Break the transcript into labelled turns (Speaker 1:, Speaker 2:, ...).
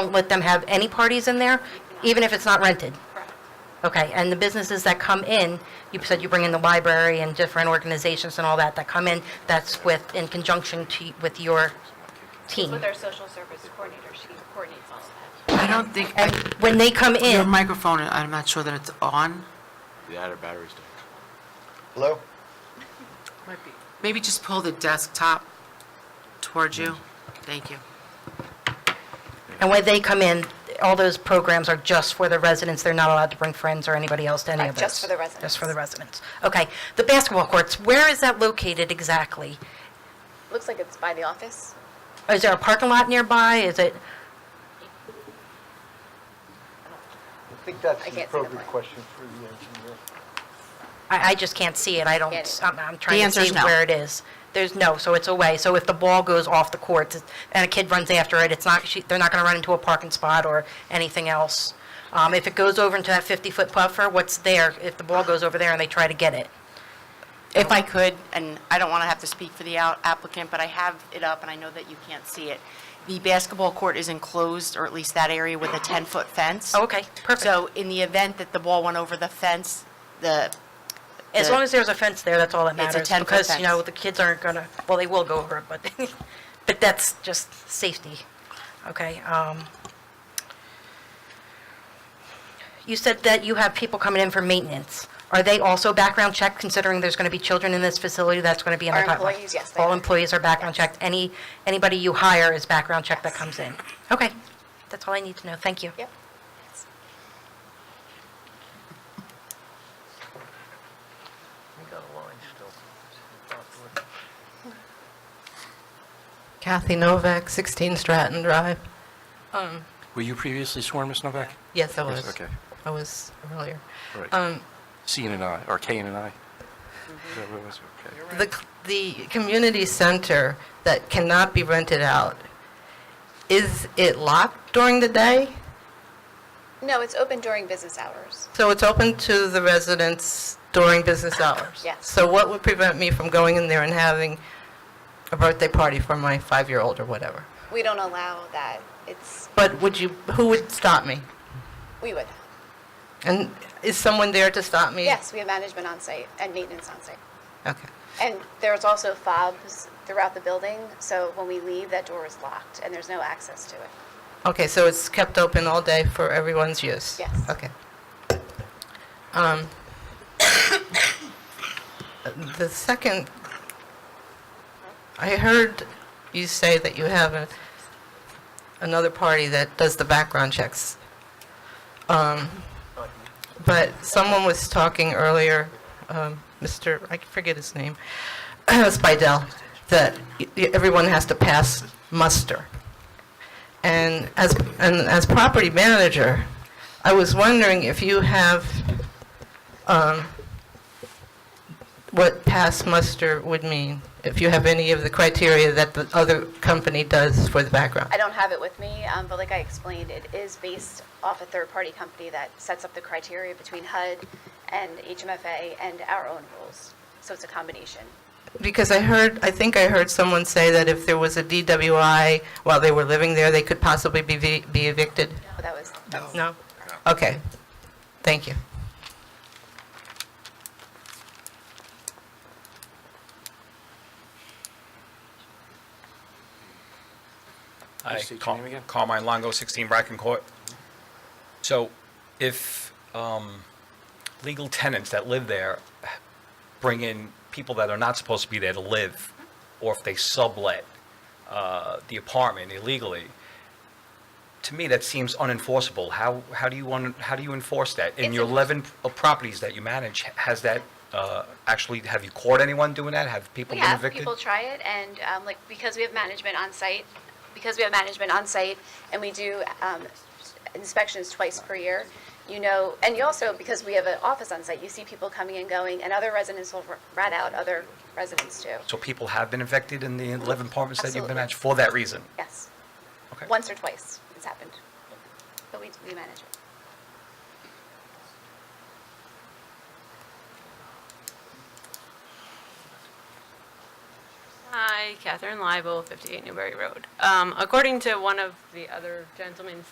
Speaker 1: won't let them have any parties in there, even if it's not rented? Okay, and the businesses that come in, you said you bring in the library and different organizations and all that that come in, that's with, in conjunction to, with your team?
Speaker 2: With our social service coordinator, she coordinates all of that.
Speaker 3: I don't think,
Speaker 1: And when they come
Speaker 3: your
Speaker 1: in,
Speaker 3: microphone, I'm not sure that it's on.
Speaker 4: The outer battery's down.
Speaker 5: Hello?
Speaker 3: Maybe just pull the desktop towards you. Thank you.
Speaker 1: and when they come in, all those programs are just for the residents, they're not allowed to bring friends or anybody else to any
Speaker 2: Right,
Speaker 1: of those?
Speaker 2: just for the residents.
Speaker 1: Just for the residents. Okay. The basketball courts, where is that located exactly?
Speaker 2: Looks like it's by the office.
Speaker 1: Is there a parking lot nearby? Is it,
Speaker 5: I think that's
Speaker 2: I
Speaker 5: an
Speaker 2: can't see the
Speaker 5: appropriate
Speaker 2: plan.
Speaker 5: question for the engineer.
Speaker 1: I, I just can't see it, I don't,
Speaker 2: Get it.
Speaker 1: I'm, I'm trying
Speaker 6: answer
Speaker 1: to
Speaker 6: is
Speaker 1: see
Speaker 6: no.
Speaker 1: where it is. There's no, so it's away, so if the ball goes off the court and a kid runs after it, it's not, she- they're not gonna run into a parking spot or anything else. Um, if it goes over into that fifty-foot buffer, what's there, if the ball goes over there and they try to get it?
Speaker 6: If I could, and I don't want to have to speak for the out- applicant, but I have it up, and I know that you can't see it. The basketball court is enclosed, or at least that area, with a 10-foot fence.
Speaker 1: Oh, Okay, perfect.
Speaker 6: So in the event that the ball went over the fence, the,
Speaker 1: As
Speaker 6: the-
Speaker 1: long as there's a fence there, that's all that
Speaker 6: a
Speaker 1: matters.
Speaker 6: 10-foot
Speaker 1: Because, you know,
Speaker 6: fence.
Speaker 1: the kids aren't gonna, well, they will go over it, but, but that's just safety. Okay, um, you said that you have people coming in for maintenance. Are they also background checked, considering there's gonna be children in this facility that's gonna be in the
Speaker 2: Our
Speaker 1: pipeline?
Speaker 2: employees, yes, they
Speaker 1: All
Speaker 2: are.
Speaker 1: employees are background checked. Any, anybody you hire is background checked that comes in? Okay, that's all I need to know. Thank you.
Speaker 2: Yep.
Speaker 7: Kathy Novak, 16 Stratton Drive.
Speaker 8: Were you previously sworn, Ms. Novak?
Speaker 7: Yes, I
Speaker 8: Yes,
Speaker 7: was.
Speaker 8: okay.
Speaker 7: I was earlier.
Speaker 8: All right.
Speaker 7: Um,
Speaker 8: C and an I, or K and an I? Is that what it was? Okay.
Speaker 7: The, the community center that cannot be rented out, is it locked during the day?
Speaker 2: No, it's open during business hours.
Speaker 7: So it's open to the residents during business hours?
Speaker 2: Yes.
Speaker 7: So what would prevent me from going in there and having a birthday party for my five-year-old or whatever?
Speaker 2: We don't allow that. It's,
Speaker 7: But would you, who would stop me?
Speaker 2: we would.
Speaker 7: And is someone there to stop me?
Speaker 2: Yes, we have management on site and maintenance on site.
Speaker 7: Okay.
Speaker 2: And there's also fobs throughout the building, so when we leave, that door is locked and there's no access to it.
Speaker 7: Okay, so it's kept open all day for everyone's use?
Speaker 2: Yes.
Speaker 7: Okay. Um, The second, I heard you say that you have a- another party that does the background checks. Um, But someone was talking earlier, um, Mr., I forget his name, Spidel, that y- y- everyone has to pass muster. And as, and as property manager, I was wondering if you have um, what pass muster would mean, if you have any of the criteria that the other company does for the background.
Speaker 2: I don't have it with me, um, but like I explained, it is based off a third-party company that sets up the criteria between HUD and HMFA and our own rules. So it's a combination.
Speaker 7: Because I heard, I think I heard someone say that if there was a DWI while they were living there, they could possibly be ve- be evicted.
Speaker 2: But that was, that's-
Speaker 7: No? Okay. Thank you.
Speaker 9: Hi,
Speaker 8: State your
Speaker 9: Car-
Speaker 8: name again.
Speaker 9: Carmine Longo, 16 Bracken Court. So if um, legal tenants that live there bring in people that are not supposed to be there to live, or if they sublet uh, the apartment illegally, to me, that seems unenforceable. How, how do you want, how do you enforce that? In
Speaker 2: It's
Speaker 9: your
Speaker 2: enforce-
Speaker 9: 11 p- properties that you manage, has that, uh, actually, have you caught anyone doing that? Have people
Speaker 2: we
Speaker 9: been
Speaker 2: have,
Speaker 9: evicted?
Speaker 2: people try it, and um, like, because we have management on site, because we have management on site, and we do um, inspections twice per year, you know, and you also, because we have an office on site, you see people coming and going, and other residents will r- rat out other residents too.
Speaker 9: So people have been evicted in the 11 apartments that you've been
Speaker 2: Absolutely.
Speaker 9: at for that reason?
Speaker 2: Yes.
Speaker 9: Okay.
Speaker 2: Once or twice, it's happened. But we, we manage it.
Speaker 10: Hi, Catherine Leibel, 58 Newberry Road. Um, According to one of the other gentlemen's